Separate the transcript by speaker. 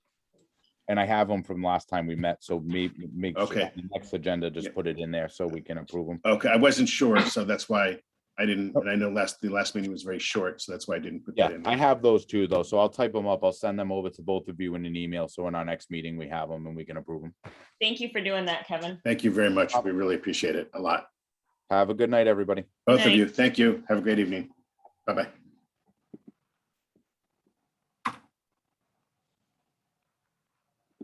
Speaker 1: And I have them from last time we met, so maybe, make sure
Speaker 2: Okay.
Speaker 1: the next agenda, just
Speaker 2: Yeah.
Speaker 1: put it in there so we can approve them.
Speaker 2: Okay, I wasn't sure, so that's why I didn't, and I know last, the last meeting was very short, so that's why I didn't put
Speaker 1: Oh. Yeah,
Speaker 2: that in.
Speaker 1: I have those too, though, so I'll type them up. I'll send them over to both of you in an email, so in our next meeting, we have them and we can approve them.
Speaker 3: Thank you for doing that, Kevin.
Speaker 2: Thank you very much. We really appreciate it a lot.
Speaker 1: Have a good night, everybody.
Speaker 2: Both of you, thank you. Have a great evening. Bye-bye.